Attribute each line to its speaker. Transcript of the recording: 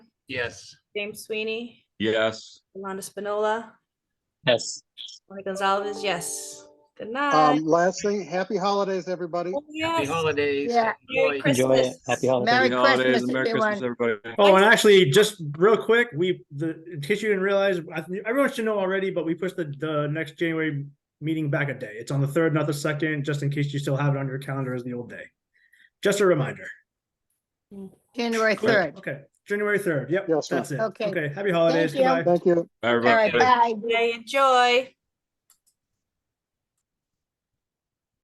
Speaker 1: Yes.
Speaker 2: James Sweeney,
Speaker 3: Yes.
Speaker 2: Yolanda Spinola,
Speaker 4: Yes.
Speaker 2: Tony Gonzalez, yes. Good night.
Speaker 5: Um, last thing, happy holidays, everybody.
Speaker 2: Oh,
Speaker 1: Happy
Speaker 2: yes.
Speaker 1: holidays.
Speaker 6: Yeah.
Speaker 2: Merry
Speaker 1: Enjoy.
Speaker 4: Enjoy it.
Speaker 2: Christmas.
Speaker 4: Happy holidays.
Speaker 6: Merry
Speaker 3: Happy holidays
Speaker 6: Christmas,
Speaker 3: and Merry Christmas,
Speaker 6: everyone.
Speaker 3: everybody.
Speaker 7: Oh, and actually, just real quick, we, the, in case you didn't realize, I think everyone should know already, but we pushed the, the next January meeting back a day. It's on the third, not the second, just in case you still have it on your calendar as the old day. Just a reminder.
Speaker 6: January third.
Speaker 7: Okay, January third. Yep,
Speaker 5: Yes, ma'am.
Speaker 7: that's it.
Speaker 6: Okay.
Speaker 7: Okay, happy holidays.
Speaker 6: Thank you.
Speaker 7: Goodbye.
Speaker 5: Thank you.
Speaker 6: All right,
Speaker 3: Everybody.
Speaker 6: bye.
Speaker 2: Enjoy.